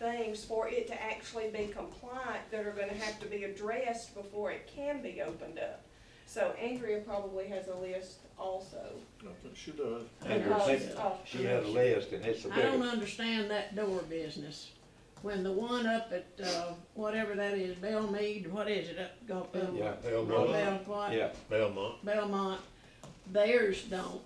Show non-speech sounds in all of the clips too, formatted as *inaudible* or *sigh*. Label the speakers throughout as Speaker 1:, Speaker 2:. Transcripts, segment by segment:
Speaker 1: things for it to actually be compliant that are gonna have to be addressed before it can be opened up. So Andrea probably has a list also.
Speaker 2: I think she does.
Speaker 1: because of
Speaker 3: She had a list and it's the
Speaker 4: I don't
Speaker 3: biggest.
Speaker 4: understand that door business. When the one up at, uh, whatever that is, Bellmead, what is it, up, go, um,
Speaker 3: Yeah,
Speaker 4: Bell, what?
Speaker 3: yeah.
Speaker 2: Belmont.
Speaker 4: Belmont, theirs don't.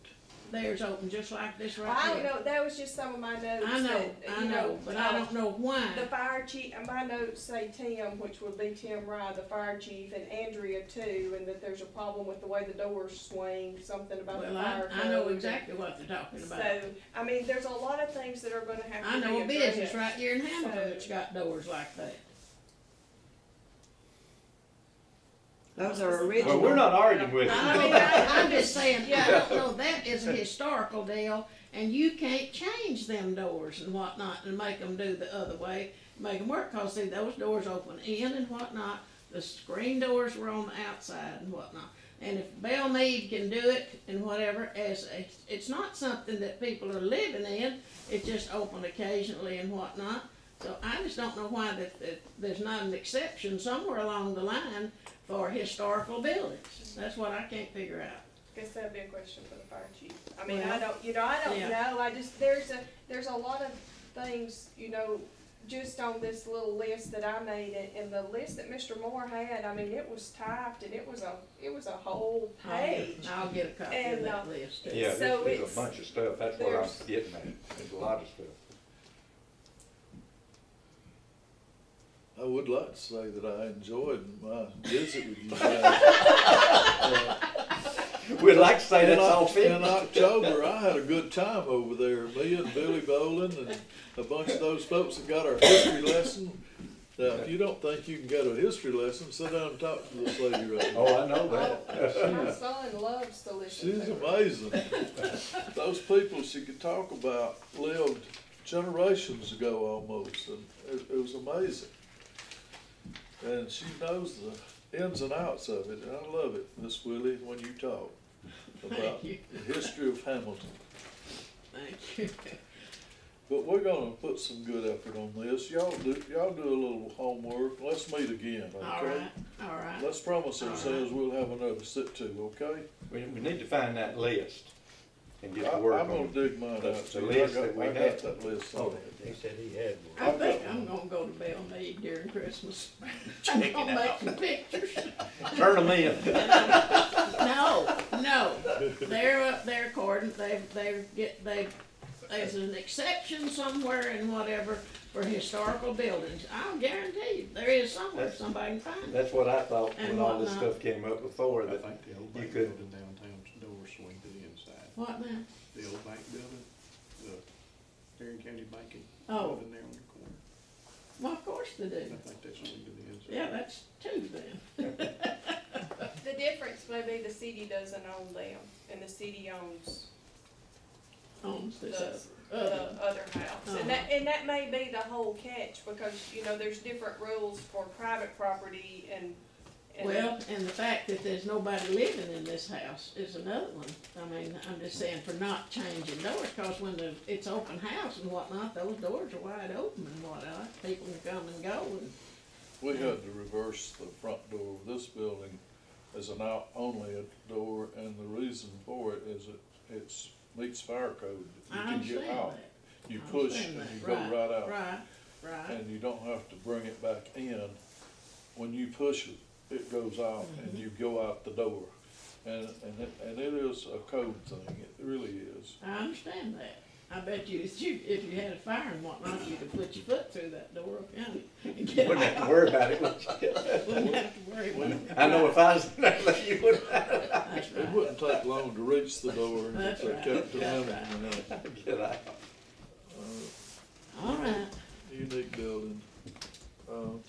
Speaker 4: Theirs open just like this
Speaker 1: I
Speaker 4: right
Speaker 1: don't
Speaker 4: here.
Speaker 1: know, that was just some of my notes
Speaker 4: I know,
Speaker 1: that,
Speaker 4: I
Speaker 1: you
Speaker 4: know, but I
Speaker 1: uh,
Speaker 4: don't know why.
Speaker 1: The fire chief, and my notes say Tim, which would be Tim Rye, the fire chief, and Andrea too, and that there's a problem with the way the doors swing, something about the
Speaker 4: Well, I,
Speaker 1: fire code.
Speaker 4: I know exactly what they're talking
Speaker 1: So,
Speaker 4: about.
Speaker 1: I mean, there's a lot of things that are gonna have to
Speaker 4: I
Speaker 1: be
Speaker 4: know a
Speaker 1: addressed.
Speaker 4: business right here in Hamilton
Speaker 1: So-
Speaker 4: that's got doors like that.
Speaker 5: Those are
Speaker 4: Oh,
Speaker 3: Well, we're
Speaker 5: original.
Speaker 3: not arguing with *laughs*
Speaker 4: I mean,
Speaker 3: it.
Speaker 4: I, I'm just saying, I don't know, that is a historical deal, and you can't change them doors and whatnot and make them do the other way, make them work, cause see, those doors open in and whatnot, the screen doors were on the outside and whatnot. And if Bell Mead can do it and whatever, as, a- it's not something that people are living in, it's just open occasionally and whatnot. So I just don't know why that, that there's not an exception somewhere along the line for historical buildings. That's what I can't figure out.
Speaker 1: Guess that'd be a question for the fire chief. I mean, I
Speaker 4: Well,
Speaker 1: don't, you know, I don't
Speaker 4: yeah.
Speaker 1: know, I just, there's a, there's a lot of things, you know, just on this little list that I made, and, and the list that Mr. Moore had, I mean, it was typed, and it was a, it was a whole page.
Speaker 4: I'll get a copy of
Speaker 1: And, uh,
Speaker 4: that list. too.
Speaker 3: Yeah,
Speaker 1: So
Speaker 3: there's, there's
Speaker 1: it's-
Speaker 3: a bunch of stuff, that's what I'm
Speaker 1: there's-
Speaker 3: getting at, there's a lot of
Speaker 4: *laughs*
Speaker 3: stuff.
Speaker 2: I would like to say that I enjoyed my visit with you guys. Uh,
Speaker 3: We'd like to say
Speaker 2: in
Speaker 3: that's
Speaker 2: Oc-
Speaker 3: all
Speaker 2: In
Speaker 3: finished.
Speaker 2: October, I had a good time over there, me and Billy Bowling and a bunch of those folks that got our history lesson. Now, if you don't think you can get a history lesson, sit down and talk to this lady right now.
Speaker 3: Oh, I know
Speaker 1: Oh, My
Speaker 3: that.
Speaker 1: son loves to listen to
Speaker 2: She's
Speaker 1: her.
Speaker 2: amazing. Those people she could talk about lived generations ago almost, and it, it was amazing. And she knows the ins and outs of it, and I love it, Miss Willie, when you talk about
Speaker 4: Thank you,
Speaker 2: the history of Hamilton.
Speaker 4: thank you.
Speaker 2: But we're gonna put some good effort on this. Y'all do, y'all do a little homework. Let's meet again,
Speaker 4: All
Speaker 2: okay?
Speaker 4: right, all right.
Speaker 2: Let's promise ourselves we'll have another sit-to, okay?
Speaker 3: We, we need to find that list and
Speaker 2: I,
Speaker 3: get to work
Speaker 2: I'm gonna
Speaker 3: on it.
Speaker 2: dig mine out.
Speaker 3: the-
Speaker 2: too.
Speaker 3: the
Speaker 2: I
Speaker 3: list
Speaker 2: got-
Speaker 3: that we
Speaker 2: I got
Speaker 3: had.
Speaker 2: that list on
Speaker 3: Oh,
Speaker 2: it.
Speaker 3: he said he had one.
Speaker 4: I think I'm gonna go to Bell Mead during Christmas. *laughs* I'm gonna make some pictures.
Speaker 3: Turn them in.
Speaker 4: No, no, they're up there according, they, they get, they, there's an exception somewhere and whatever for historical buildings. I'll guarantee you, there is somewhere,
Speaker 3: That's-
Speaker 4: somebody can find it.
Speaker 3: That's what I thought
Speaker 4: And
Speaker 3: when all this
Speaker 4: whatnot.
Speaker 3: stuff came up before,
Speaker 6: I
Speaker 3: that
Speaker 6: think the old
Speaker 3: you
Speaker 6: bank
Speaker 3: could-
Speaker 6: building downtown's door swing to the inside.
Speaker 4: What now?
Speaker 6: The old bank building, the Tarrant County Banking
Speaker 4: Oh.
Speaker 6: building there on the corner.
Speaker 4: Well, of course they
Speaker 6: I
Speaker 4: do.
Speaker 6: think that's swing to the inside.
Speaker 4: Yeah, that's two then.
Speaker 1: The difference may be the city doesn't own them, and the city owns
Speaker 4: Owns this
Speaker 1: the, uh, the
Speaker 4: other. one.
Speaker 1: other house. And that, and that may be the whole catch, because, you know, there's different rules for private property and. and-
Speaker 4: Well, and the fact that there's nobody living in this house is another one. I mean, I'm just saying for not changing doors, cause when the, it's open house and whatnot, those doors are wide open and whatnot. People can come and go and,
Speaker 2: We had to reverse the front door of this building as an out, only a door, and the reason for it is it, it's meets fire code. You
Speaker 4: I
Speaker 2: can
Speaker 4: understand
Speaker 2: get out.
Speaker 4: that.
Speaker 2: You
Speaker 4: I
Speaker 2: push and
Speaker 4: understand
Speaker 2: you
Speaker 4: that.
Speaker 2: go right out,
Speaker 4: Right, right.
Speaker 2: and you don't have to bring it back in. When you push it, it goes out and you go out the door. And, and it, and it is a code thing, it really is.
Speaker 4: I understand that. I bet you, if you, if you had a fire and whatnot, you could put your foot through that door, yeah, *laughs* and get
Speaker 3: wouldn't
Speaker 4: out.
Speaker 3: have to worry about it. would you? *laughs*
Speaker 4: Wouldn't have to worry about it.
Speaker 3: I know if I was in that, you wouldn't.
Speaker 4: That's
Speaker 2: It
Speaker 4: right.
Speaker 2: wouldn't take long to reach the door if
Speaker 4: That's
Speaker 2: they
Speaker 4: right.
Speaker 2: kept it
Speaker 4: That's
Speaker 2: in.
Speaker 4: right.
Speaker 3: Get out.
Speaker 4: All right.
Speaker 2: unique building. Um,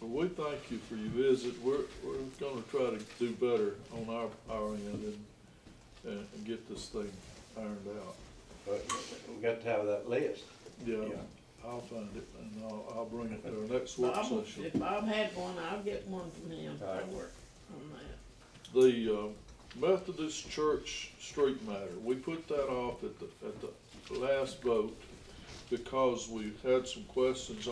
Speaker 2: But we thank you for your visit. We're, we're gonna try to do better on our, our end and, and and get this thing ironed out.
Speaker 3: But we got to have that list.
Speaker 2: Yeah,
Speaker 3: Yeah.
Speaker 2: I'll find it and I'll, I'll bring it to our next work
Speaker 4: Bob, will-
Speaker 2: session.
Speaker 4: if Bob had one, I'll get one from him.
Speaker 3: All right.
Speaker 4: I'll work on that.
Speaker 2: The, uh, Methodist Church street matter, we put that off at the, at the last vote because we had some questions